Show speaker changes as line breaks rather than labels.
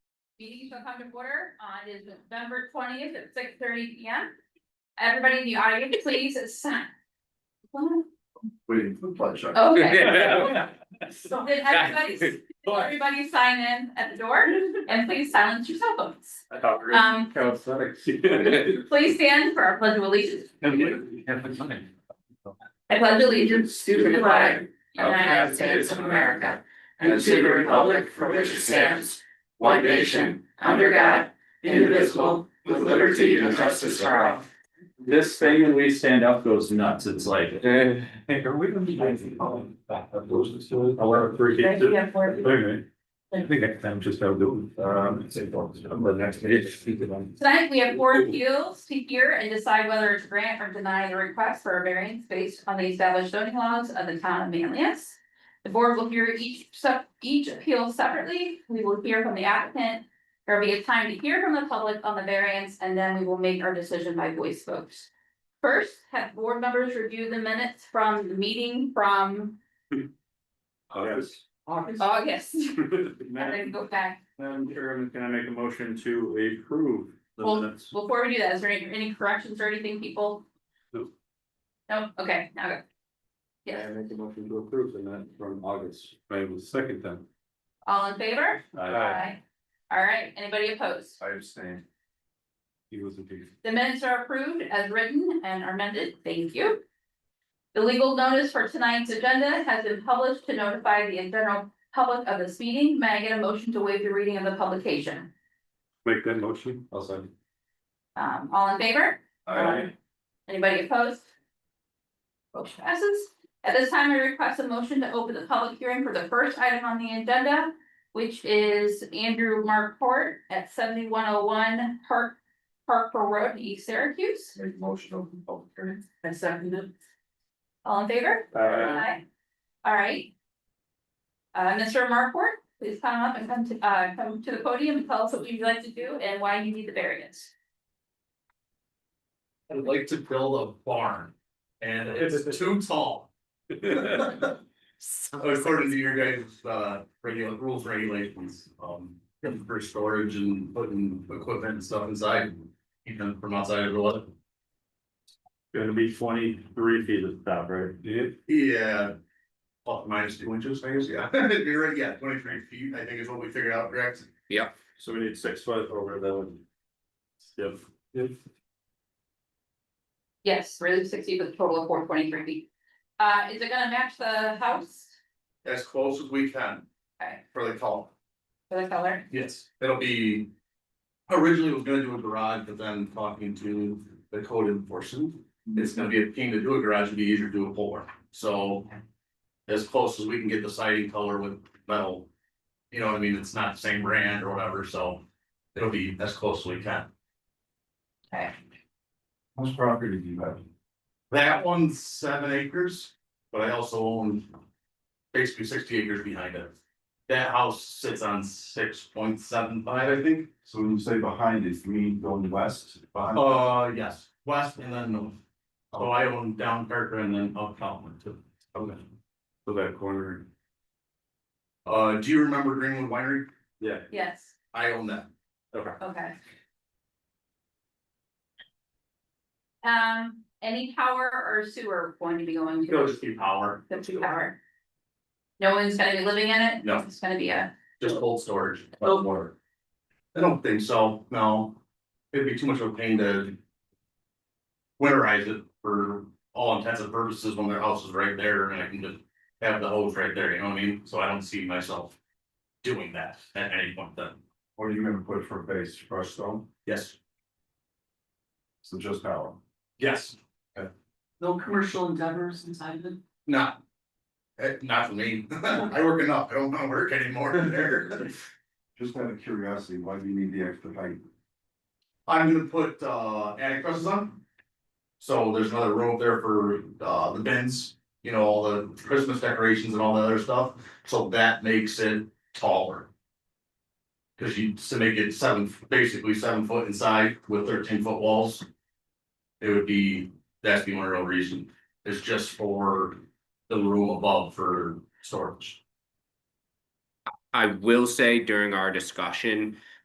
Meeting shall come to order on is November twentieth at six thirty P M. Everybody in the audience, please sign.
Waiting for the pledge. sorry.
Oh, Okay. So did everybody, everybody sign in at the door and please silence your cell phones.
I thought we were-
Um,
Calisthenics.
please stand for our pledge of allegiance.
Have a sign.
I pledge allegiance to the flag of the
Okay.
United States of America
and to the republic for which it stands, one nation, under God, indivisible, with liberty and justice for all.
This thing when we stand up goes nuts, it's like. Hey, are we gonna be?
Our three kids. Anyway, I think next time just have do, um, say, but next meeting.
Tonight, we have four appeals to hear and decide whether to grant or deny the request for a variance based on the established zoning laws of the town of Manlius. The board will hear each sub, each appeal separately. We will hear from the applicant. There will be a time to hear from the public on the variance, and then we will make our decision by voice votes. First, have board members review the minutes from the meeting from
Yes.
August, and then
Madam
go back
Madam Chairman, can I make a motion to approve the
Well-
minutes?
Before we do that, is there any, any corrections or anything, people?
No.
No, okay, now go.
Can
Yes,
I make a motion to approve the minutes from August?
I will second them.
all in favor?
Aye.
All right, anybody opposed?
I abstain. He was a big.
The minutes are approved as written and are amended, thank you. The legal notice for tonight's agenda has been published to notify the general public of this meeting, may I get a motion to waive the reading of the publication?
Make that motion. I'll second.
Um, all in favor? Um, Anybody opposed? Motion passes. At this time, I request a motion to open the public hearing for the first item on the agenda, which is Andrew Markport at seventy-one oh one Park, Parkville Road, East Syracuse.
Make motion open public hearing. And second it.
All in favor? Aye. All right. Uh, Mr. Markport, please come up and come to, uh, come to the podium and tell us what you'd like to do and why you need the variance.
I'd like to build a barn and it's too tall. According to your guys' uh regular rules, regulations, um, for storage and putting equipment and stuff inside, even from outside of the lot.
Gonna be twenty-three feet at the top, right? Yeah.
Yeah. Plus minus two inches, I guess, yeah, you're right, yeah, twenty three feet, I think is what we figured out, correct?
So we need six foot over the. Yep.
Yes, really sixty, but a total of four twenty-three feet. Uh, is it gonna match the house,
As close as we can.
Okay.
For the call.
for the color?
Yes, it'll be. Originally was gonna do a garage, but then talking to the code enforcement, it's gonna be a pain to do a garage, it'd be easier to do a pour, so. As close as we can get the siding color with metal. You know what I mean? It's not the same brand or whatever, so it'll be as close as we can.
How much property do you have?
That one's seven acres, but I also own. Basically sixty acres behind it. That house sits on six point seven five, I think.
So when you say behind it, you mean going west? Behind?
Oh,
Uh, yes, west and then north. So I own down Parker and then up Calvin too. Okay.
So that corner.
Uh, do you remember Greenwood Winery?
Yeah.
Yes,
I own that.
okay. Um, any power or sewer going to be going to?
It'll just be power.
The two power? No one's gonna be living in it?
No.
It's gonna be a,
Just cold storage. but water. I don't think so, no. It'd be too much of a pain to. Winterize it for all intents and purposes when their house is right there and I can just have the hose right there, you know what I mean? So I don't see myself. Doing that at any point then.
What are you gonna put for base, crushed stone?
Yes.
So just power?
Yes.
No commercial endeavors inside of it.
Not. eh, not for me. I work enough. I don't wanna work anymore there.
Just out of curiosity, why do you need the extra height?
I'm gonna put uh attic presses on. So there's another room up there for uh the bins, you know, all the Christmas decorations and all that other stuff, so that makes it taller. Cause you to make it seven, basically seven foot inside with thirteen foot walls. It would be, that's the only real reason, it's just for the room above for storage.
I will say during our discussion,